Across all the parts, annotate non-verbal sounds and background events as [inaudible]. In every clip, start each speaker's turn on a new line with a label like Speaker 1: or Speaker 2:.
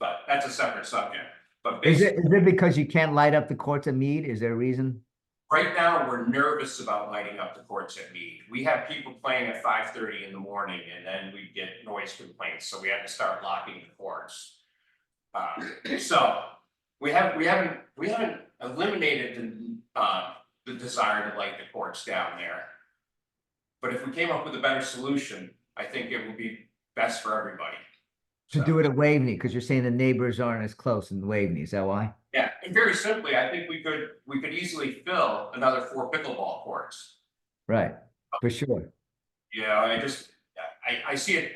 Speaker 1: but that's a separate subject. But
Speaker 2: Is it,
Speaker 1: basically,
Speaker 2: is it because you can't light up the courts at Mead? Is there a reason?
Speaker 1: right now, we're nervous about lighting up the courts at Mead. We have people playing at five thirty in the morning and then we get noise complaints, so we had to start locking the courts. Uh, so we have, we haven't, we haven't eliminated the, uh, the desire to light the courts down there. But if we came up with a better solution, I think it would be best for everybody.
Speaker 2: To
Speaker 1: So-
Speaker 2: do it at Waveney, because you're saying the neighbors aren't as close in Waveney, is that why?
Speaker 1: Yeah, and very simply, I think we could, we could easily fill another four pickleball courts.
Speaker 2: Right, for sure.
Speaker 1: You know, I just, I, I see it,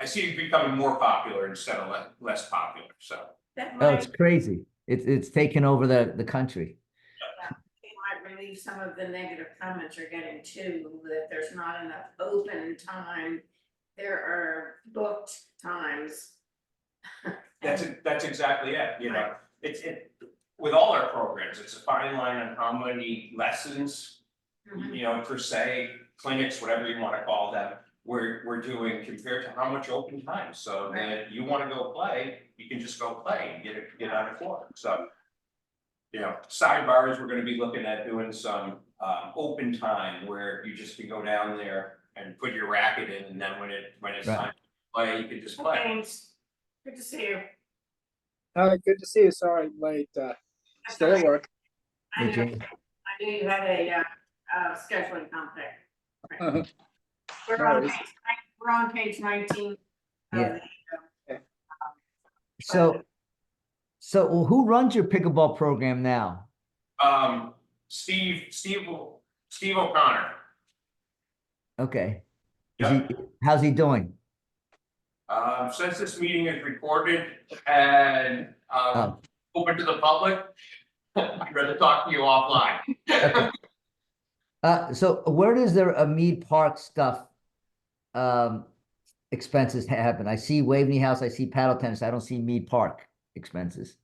Speaker 1: I see it becoming more popular instead of less, less popular, so.
Speaker 3: That
Speaker 2: Oh, it's
Speaker 3: might,
Speaker 2: crazy. It's, it's taken over the, the country.
Speaker 3: might relieve some of the negative comments you're getting too, that there's not enough open time. There are booked times. [laughs]
Speaker 1: That's,
Speaker 3: And
Speaker 1: it- that's exactly it, you know, it's, it, with all our programs, it's a fine line on how many lessons,
Speaker 3: Mhm.
Speaker 1: you know, per se, clinics, whatever you wanna call them, we're, we're doing compared to how much open time, so that you wanna go play, you can just go play and get it, get on the floor, so. You know, sidebars, we're gonna be looking at doing some, um, open time where you just can go down there and put your racket in, and then when it, when it's
Speaker 2: Right.
Speaker 1: time to play, you can just play.
Speaker 3: Thanks. Good to see you.
Speaker 4: All right, good to see you. Sorry, I'm late. Uh, still at work.
Speaker 3: I
Speaker 2: Hey,
Speaker 3: know,
Speaker 2: Jane.
Speaker 3: I knew you had a, uh, uh, scheduling conflict.
Speaker 4: Uh-huh.
Speaker 2: [laughs]
Speaker 3: We're
Speaker 4: No
Speaker 3: on
Speaker 4: worries.
Speaker 3: page, nine- we're on page nineteen. of
Speaker 2: Yeah.
Speaker 3: the-
Speaker 2: So, so well, who runs your pickleball program now?
Speaker 1: Um, Steve, Steve, O- Steve O'Connor,
Speaker 2: Okay. Is he, how's he doing?
Speaker 1: Um, since this meeting is recorded and, um,
Speaker 2: Oh.
Speaker 1: open to the public, [laughs] I'd rather talk to you offline.
Speaker 2: Uh, so where does their uh, Mead Park stuff, um, expenses happen? I see Waveney House, I see paddle tennis, I don't see Mead Park expenses.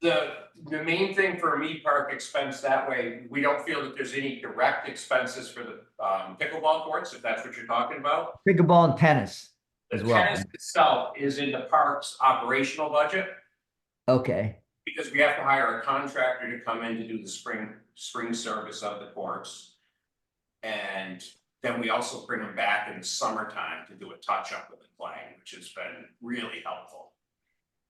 Speaker 1: The, the main thing for a Mead Park expense that way, we don't feel that there's any direct expenses for the, um, pickleball courts, if that's what you're talking about.
Speaker 2: Pickleball and tennis
Speaker 1: The
Speaker 2: as well.
Speaker 1: tennis itself is in the park's operational budget,
Speaker 2: Okay,
Speaker 1: because we have to hire a contractor to come in to do the spring, spring service of the courts. And then we also bring them back in the summertime to do a touch-up with the playing, which has been really helpful.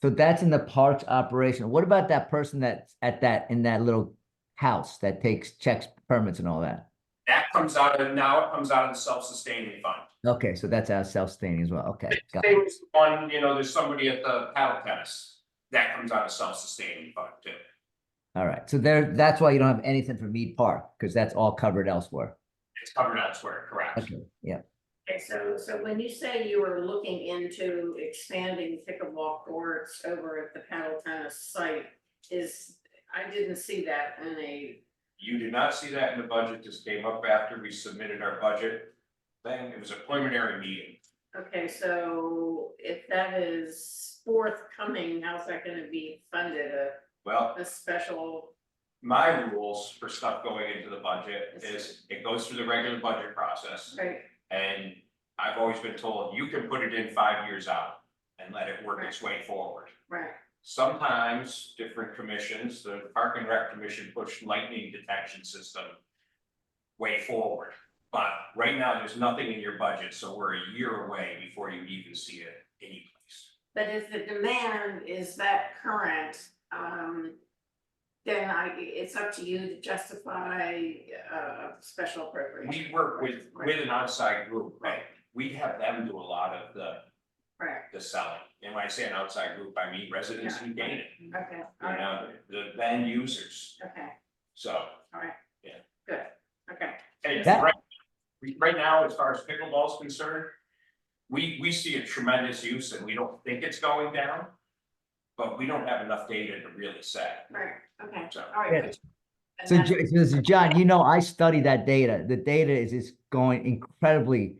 Speaker 2: so that's in the parks operation. What about that person that's at that, in that little house that takes checks, permits and all that?
Speaker 1: That comes out of, now it comes out of the self-sustaining fund.
Speaker 2: Okay, so that's our self-staining as well. Okay. got
Speaker 1: Same
Speaker 2: it.
Speaker 1: as the one, you know, there's somebody at the paddle tennis, that comes out of self-sustaining fund too.
Speaker 2: All right. So there, that's why you don't have anything for Mead Park, because that's all covered elsewhere.
Speaker 1: It's covered elsewhere, correct?
Speaker 2: Okay, yeah.
Speaker 3: Okay, so, so when you say you were looking into expanding pickleball courts over at the paddle tennis site, is, I didn't see that in a,
Speaker 1: You did not see that in the budget, just came up after we submitted our budget thing, it was a preliminary meeting.
Speaker 3: okay, so if that is forthcoming, how's that gonna be funded, a,
Speaker 1: Well,
Speaker 3: a special?
Speaker 1: my rules for stuff going into the budget is it goes through the regular budget process.
Speaker 3: Right,
Speaker 1: And I've always been told you can put it in five years out and let it work its way forward.
Speaker 3: right,
Speaker 1: Sometimes different commissions, the Park and Rec Commission pushed lightning detection system way forward. But right now, there's nothing in your budget, so we're a year away before you even see it anyplace.
Speaker 3: but if the demand is that current, um, then I, it's up to you to justify, uh, special appropriation.
Speaker 1: We work with, with an outside group, right?
Speaker 3: Right.
Speaker 1: We have them do a lot of the
Speaker 3: Correct,
Speaker 1: the selling. And when I say an outside group, I mean residents who gain it, you
Speaker 3: okay, all right,
Speaker 1: know, the then users.
Speaker 3: okay.
Speaker 1: So,
Speaker 3: Okay,
Speaker 1: and
Speaker 2: That-
Speaker 1: right, right now, as far as pickleball is concerned, we, we see a tremendous use and we don't think it's going down. But we don't have enough data to really say,
Speaker 3: right, okay,
Speaker 1: so.
Speaker 3: all
Speaker 2: Yeah.
Speaker 3: right. good. And
Speaker 2: So,
Speaker 3: then-
Speaker 2: Jo- so so John, you know, I study that data. The data is, is going incredibly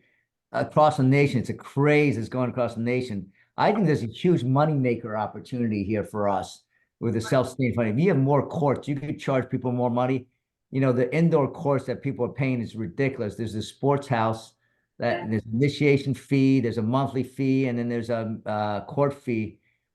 Speaker 2: across the nation. It's a craze that's going across the nation. I think there's a huge moneymaker opportunity here for us with the self-sustaining funding. If you have more courts, you could charge people more money. You know, the indoor courts that people are paying is ridiculous. There's this sports house that
Speaker 3: Yeah.
Speaker 2: there's initiation fee, there's a monthly fee, and then there's a, uh court fee.